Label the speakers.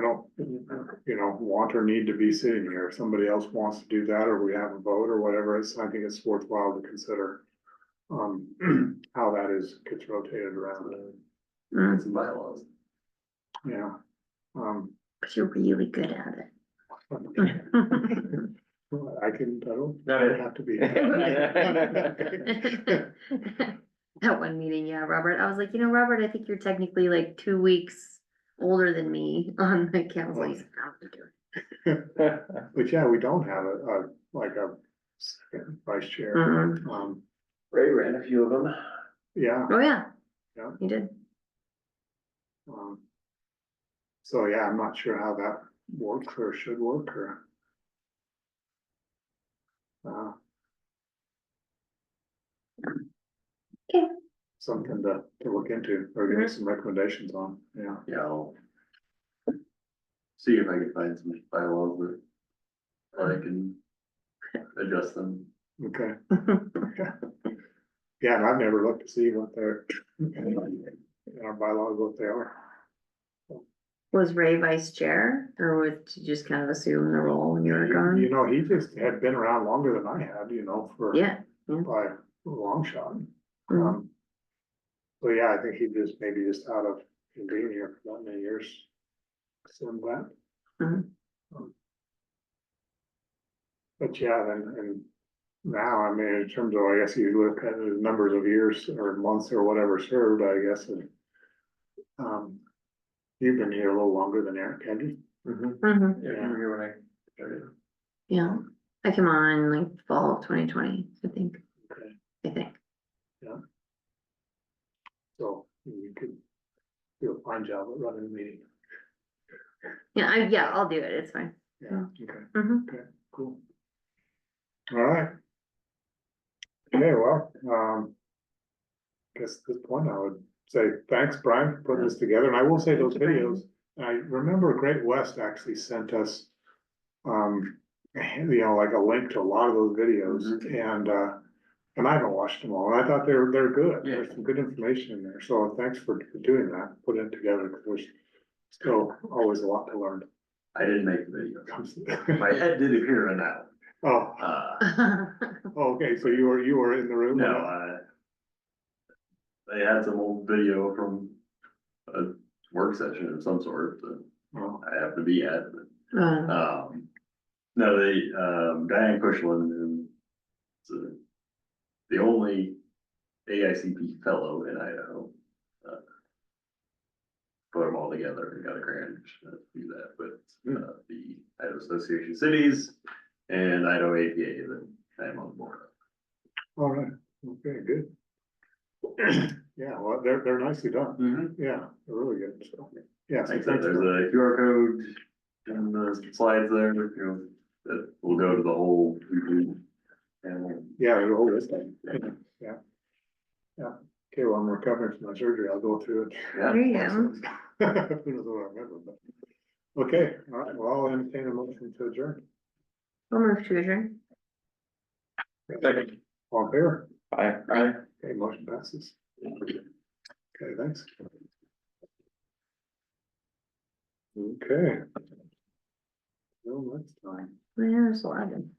Speaker 1: don't, you know, want or need to be sitting here. If somebody else wants to do that, or we have a vote or whatever, it's, I think it's worthwhile to consider. Um, how that is, gets rotated around,
Speaker 2: Mm,
Speaker 3: Some bylaws.
Speaker 1: yeah. Um,
Speaker 2: You're really good at it.
Speaker 1: I can, I don't,
Speaker 3: Got
Speaker 1: I don't have to be.
Speaker 2: At one meeting, yeah, Robert, I was like, you know, Robert, I think you're technically like two weeks older than me on the council. He's like, "I don't do it."
Speaker 1: But yeah, we don't have a, a, like a second vice chair,
Speaker 2: Mm,
Speaker 1: um,
Speaker 3: Ray ran a few of them.
Speaker 1: yeah,
Speaker 2: Oh, yeah.
Speaker 1: Yeah.
Speaker 2: You did.
Speaker 1: um. So, yeah, I'm not sure how that works or should work or. Uh.
Speaker 2: Okay.
Speaker 1: Something to, to look into or give us some recommendations on, yeah,
Speaker 3: Yeah. I'll See if I can find some bylaws that, that I can adjust them.
Speaker 1: okay. Yeah, and I've never looked to see what their,
Speaker 3: Mm-hmm.
Speaker 1: our bylaws, what they are.
Speaker 2: Was Ray vice chair or was you just kind of assume the role when you were
Speaker 1: You you
Speaker 2: gone?
Speaker 1: know, he just had been around longer than I had, you know, for.
Speaker 2: Yeah.
Speaker 1: By a long shot.
Speaker 2: Mm.
Speaker 1: Um. So yeah, I think he just maybe just out of being here for that many years. So I'm glad.
Speaker 2: Mhm.
Speaker 1: Um, But yeah, then and now, I mean, in terms of, I guess you look at the numbers of years or months or whatever served, I guess. and, Um. You've been here a little longer than Eric, have you?
Speaker 3: Mhm.
Speaker 2: Mhm.
Speaker 3: Yeah, I remember when I started.
Speaker 2: Yeah, I came on like fall of twenty twenty, I think,
Speaker 1: Okay.
Speaker 2: I think.
Speaker 1: So you could do a fine job at running the meeting.
Speaker 2: Yeah, I, yeah, I'll do it. It's fine.
Speaker 1: Yeah, okay,
Speaker 2: Mhm.
Speaker 1: cool. All right. Okay, well, um. Guess at this point I would say thanks, Brian, for putting this together, and I will say those
Speaker 2: Thank you,
Speaker 1: videos, I remember Great West actually sent us. Um, you know, like a link to a lot of those videos and, uh. And I haven't watched them all, and I thought they were, they're good, there's some good information in there, so thanks for doing that, putting it together, because there's. Still always a lot to learn.
Speaker 3: I didn't make the video. My head did appear on that.
Speaker 1: Oh,
Speaker 3: one. Uh,
Speaker 1: oh, okay, so you were, you were in the room?
Speaker 3: no, I. They had some old video from a work session of some sort that
Speaker 1: Oh,
Speaker 3: I happened to be at, but
Speaker 2: Uh,
Speaker 3: Um, no, they, um, Diane Cushman, who is the- the only AICP fellow in Idaho. uh, Put them all together and got a grant to do that, but, uh, the Idaho Association of Cities and Idaho APA that I'm on the board of.
Speaker 1: all right, okay, good. Yeah, well, they're, they're nicely done, yeah, they're really good, so, yeah. so
Speaker 3: Like I said,
Speaker 1: thanks
Speaker 3: there's
Speaker 1: for-
Speaker 3: a QR code in the slides there, you know, that will go to the whole. YouTube channel.
Speaker 1: Yeah, the whole list, yeah. Yeah, okay, well, I'm recovering from my surgery, I'll go through it.
Speaker 2: There you go.
Speaker 1: Who knows what I remember, but. Okay, all right, well, I'll entertain a motion to adjourn.
Speaker 2: I'll move to adjourn.
Speaker 3: Second.
Speaker 1: All in favor?
Speaker 3: Aye. Aye.
Speaker 1: okay, motion passes. Okay, thanks. Okay. Till next time.
Speaker 2: Where's Logan?